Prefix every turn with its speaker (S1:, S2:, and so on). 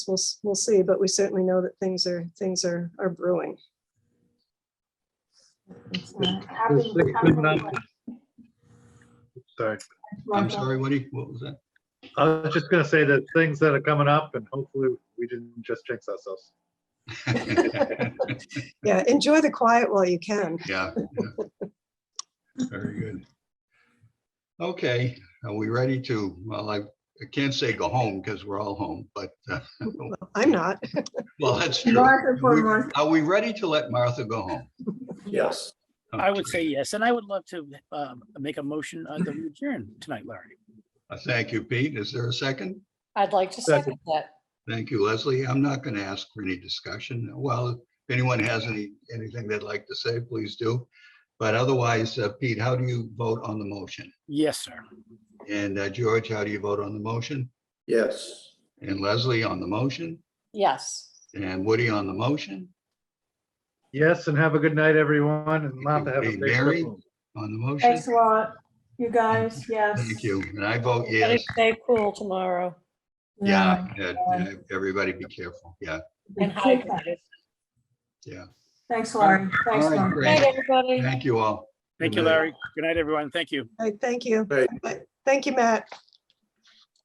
S1: we'll, s- we'll see, but we certainly know that things are, things are, are brewing.
S2: Uh, Happy
S3: It's like good
S2: coming.
S3: night. Sorry,
S2: Welcome.
S4: I'm sorry, Woody, what was that?
S3: I was just gonna say that things that are coming up and hopefully we didn't just jinx ourselves.
S1: Yeah, enjoy the quiet while you can.
S4: Yeah. yeah. Very good. Okay, are we ready to, well, I I can't say go home because we're all home, but, uh,
S1: I'm not.
S4: well, that's true.
S2: Martha for
S4: We-
S2: Martha.
S4: Are we ready to let Martha go home?
S5: Yes.
S4: Okay.
S5: I would say yes, and I would love to um, make a motion on the adjourn tonight, Larry.
S4: Uh, Thank you, Pete. Is there a second?
S6: I'd like to
S3: Second.
S6: second that.
S4: Thank you, Leslie. I'm not going to ask for any discussion. Well, if anyone has any, anything they'd like to say, please do. But otherwise, uh, Pete, how do you vote on the motion?
S5: Yes, sir.
S4: And uh, George, how do you vote on the motion?
S5: Yes.
S4: And Leslie on the motion?
S6: Yes.
S4: And Woody on the motion,
S3: Yes, and have a good night, everyone, and Martha, have a
S4: Hey,
S3: safe
S4: Mary?
S3: trip. home.
S4: on the motion.
S2: Thanks a lot, you guys, yes.
S4: Thank you. And I vote
S6: Better
S4: yes.
S6: stay cool tomorrow
S4: Yeah, yeah, yeah, everybody be careful. Yeah,
S6: and hydrated.
S4: yeah.
S2: Thanks, Laurie, thanks,
S4: All right,
S2: Laurie.
S4: great.
S6: Night, everybody.
S4: Thank you all.
S5: Thank you, Larry. Good night, everyone. Thank you.
S1: Hey, Thank you.
S5: Right.
S1: Thank you, Matt.